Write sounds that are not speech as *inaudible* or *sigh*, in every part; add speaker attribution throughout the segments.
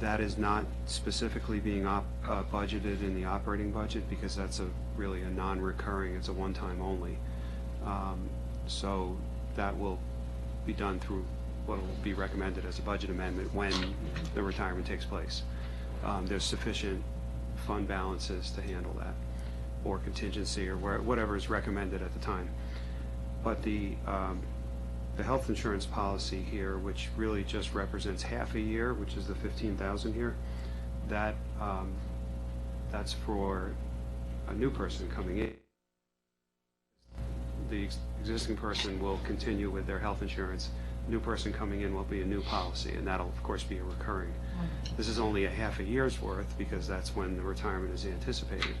Speaker 1: That is not specifically being op, uh, budgeted in the operating budget because that's a, really a non-recurring, it's a one-time only. Um, So that will be done through what will be recommended as a budget amendment when the retirement takes place. Um, There's sufficient fund balances to handle that, or contingency, or where- whatever is recommended at the time. But the, um, the health insurance policy here, which really just represents half a year, which is the 15,000 here, that, um, that's for a new person coming in. The ex- existing person will continue with their health insurance. New person coming in will be a new policy, and that'll, of course, be a recurring. This is only a half a year's worth, because that's when the retirement is anticipated.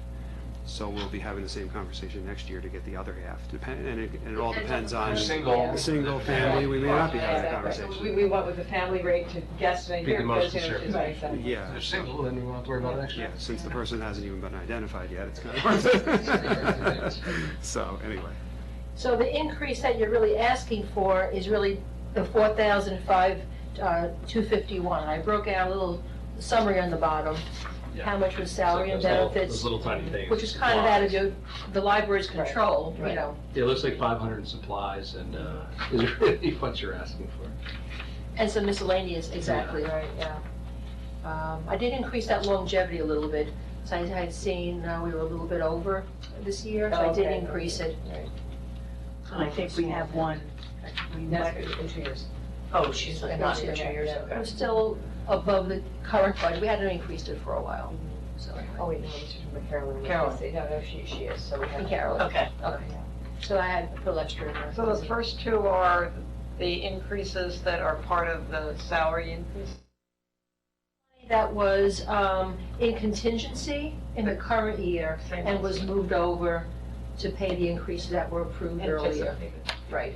Speaker 1: So we'll be having the same conversation next year to get the other half, Depend and it and it all depends
Speaker 2: Depends on
Speaker 1: on.
Speaker 2: the
Speaker 3: Single.
Speaker 1: The single family, we may not be having a
Speaker 3: We,
Speaker 2: Exactly.
Speaker 1: conversation.
Speaker 3: we went with the family rate to guesstimate
Speaker 4: Be the
Speaker 3: here,
Speaker 4: most
Speaker 3: because you know, it's
Speaker 4: conservative.
Speaker 3: right, so.
Speaker 4: If
Speaker 1: Yeah,
Speaker 4: they're single, then you won't have to worry about it next
Speaker 1: yeah,
Speaker 4: year.
Speaker 1: since the person hasn't even been identified yet, it's kind of. *laughs* So, anyway,
Speaker 5: So the increase that you're really asking for is really the four thousand five, uh, two fifty-one. I broke out a little summary on the bottom, how much was salary and
Speaker 6: Those little-
Speaker 5: benefits,
Speaker 6: Those little tiny things.
Speaker 5: which is kind of out of your, the library's control, you
Speaker 3: Right.
Speaker 5: know.
Speaker 6: Yeah, it looks like five hundred in supplies and, uh, *laughs* is really what you're asking for.
Speaker 5: And some miscellaneous, exactly, right, yeah. Um, I did increase that longevity a little bit, so I had seen, uh, we were a little bit over this year, so I did
Speaker 3: Okay.
Speaker 5: increase it.
Speaker 7: And I think we have one. We
Speaker 3: That's
Speaker 7: might-
Speaker 3: in two years.
Speaker 7: Oh, she's like, not in two years,
Speaker 5: I'm
Speaker 7: okay.
Speaker 5: still above the current budget, we hadn't increased it for a while,
Speaker 7: Mm-hmm.
Speaker 5: so. anyway.
Speaker 3: Oh, wait, no, she's from Carolyn.
Speaker 7: Carolyn.
Speaker 3: No, no, she, she is, so we have.
Speaker 5: Carolyn.
Speaker 7: Okay.
Speaker 5: Okay. So I had a little extra in there.
Speaker 2: So those first two are the increases that are part of the salary increase?
Speaker 5: That was um, in contingency in the current year and was moved over to pay the increases that were approved earlier.
Speaker 2: Anticipated.
Speaker 5: Right.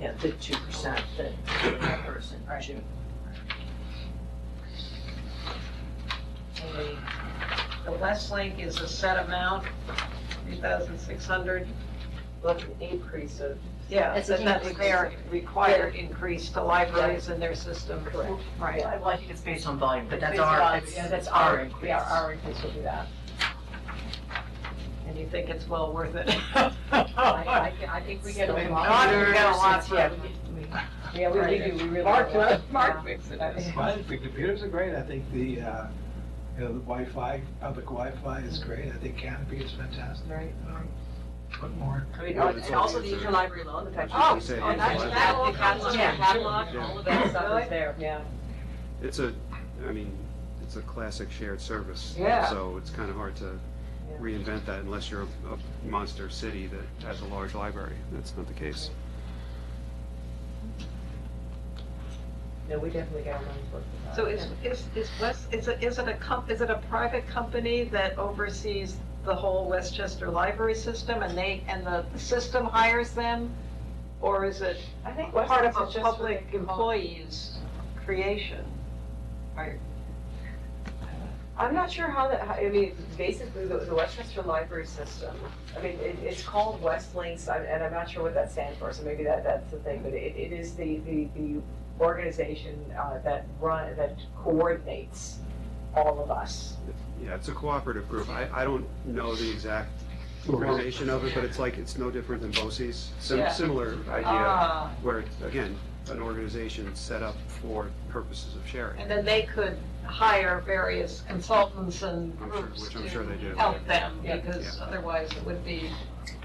Speaker 7: Yeah, the two percent that that person, June.
Speaker 2: And The the Westlink is a set amount, 3,600.
Speaker 3: Look, increase of.
Speaker 2: Yeah,
Speaker 5: That's an
Speaker 2: so that's
Speaker 5: increase.
Speaker 2: their required increase to libraries in their system. Correct. Right.
Speaker 7: Yeah, Well, I think it's based on volume, but that's
Speaker 3: Based on-
Speaker 7: our,
Speaker 3: yeah,
Speaker 7: that's that's our increase.
Speaker 3: Yeah, our increase will be that.
Speaker 2: And you think it's well
Speaker 3: *laughs*
Speaker 2: worth it?
Speaker 3: I, I, I think we get a
Speaker 2: We've
Speaker 3: lot.
Speaker 2: got- we've got a lot
Speaker 3: Yeah,
Speaker 2: from-
Speaker 3: we- we- Yeah, we we do, we really.
Speaker 2: Mark,
Speaker 3: do.
Speaker 7: Oh,
Speaker 2: Mark makes it.
Speaker 4: It's fine, the computers are great, I think the, uh, you know, the Wi-Fi, public Wi-Fi is great, I think Canopy is fantastic.
Speaker 3: Right.
Speaker 4: Um, What more?
Speaker 7: I mean,
Speaker 1: Yeah,
Speaker 7: oh,
Speaker 1: that's
Speaker 7: And
Speaker 1: all
Speaker 7: also the
Speaker 1: these are-
Speaker 7: interlibrary loan, the fact.
Speaker 1: I was gonna say,
Speaker 7: Oh, that's-
Speaker 1: interlibrary.
Speaker 7: that- that's-
Speaker 3: Yeah.
Speaker 7: catalog,
Speaker 1: Yeah.
Speaker 7: of
Speaker 3: That stuff is there, yeah.
Speaker 1: it's a, I mean, it's a classic shared service.
Speaker 3: Yeah.
Speaker 1: So it's kind of hard to reinvent that unless you're a- a monster city that has a large library. That's not the case.
Speaker 3: No, we definitely got our money's worth. with that.
Speaker 2: So is, is, is West, is it, is it a comp, is it a private company that oversees the whole Westchester library system and they, and the system hires them? Or is it
Speaker 3: I think
Speaker 2: part of
Speaker 3: Weston's is
Speaker 2: a
Speaker 3: just for the.
Speaker 2: public employee's creation?
Speaker 8: I'm not sure how that, how- I mean, basically, the, the Westchester Library System, I mean, it, it's called Westlinks, I'm- and I'm not sure what that stands for, so maybe that, that's the thing, but it, it is the, the, the organization, uh, that run, that coordinates all of us.
Speaker 1: Yeah, it's a cooperative group. I, I don't know the exact organization of it, but it's like, it's no different than BOCES. Sim-
Speaker 2: Yeah.
Speaker 1: Similar idea,
Speaker 2: Ah,
Speaker 1: where, again, an organization set up for purposes of sharing.
Speaker 2: and then they could hire various consultants and
Speaker 1: I'm sure-
Speaker 2: groups
Speaker 1: which I'm sure they
Speaker 2: to
Speaker 1: do.
Speaker 2: help them,
Speaker 3: Yeah.
Speaker 2: because
Speaker 1: Yeah.
Speaker 2: otherwise it would be,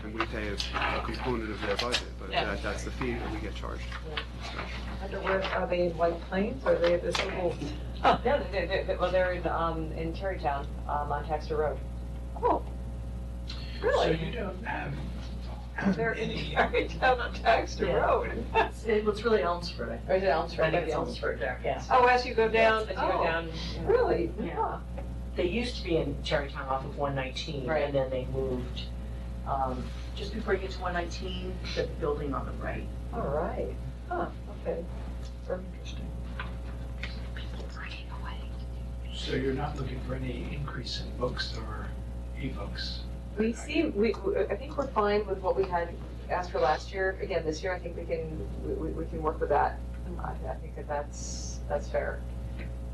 Speaker 1: And we pay a a component of their budget, but
Speaker 2: Yeah.
Speaker 1: that, that's the fee that we get charged.
Speaker 2: I don't know, where- are they in White Plains, or are they at this little?
Speaker 3: No, they're, they're- they're- well, they're in, um, in Terrytown, um, on Texter Road.
Speaker 4: Really? So you don't have.
Speaker 2: They're in *laughs*
Speaker 4: any-
Speaker 2: Tarrytown on Taxter
Speaker 3: Yeah.
Speaker 2: Road. *laughs*
Speaker 7: It was really Elmsford, I think.
Speaker 3: Or is it Elmsford?
Speaker 7: I think it's Elmsford there.
Speaker 3: Yeah.
Speaker 2: Oh, as you go down,
Speaker 3: As you go down.
Speaker 2: Oh, Really?
Speaker 7: Yeah. They used to be in Tarrytown off of one nineteen,
Speaker 3: Right.
Speaker 7: and then they moved, um, just before you get to one nineteen, the building on the right.
Speaker 3: All right. Huh, okay.
Speaker 4: So you're not looking for any increase in books or e-books?
Speaker 8: We see, we, we- I think we're fine with what we had asked for last year, again, this year, I think we can, we, we- we can work with that. I I think that that's, that's fair.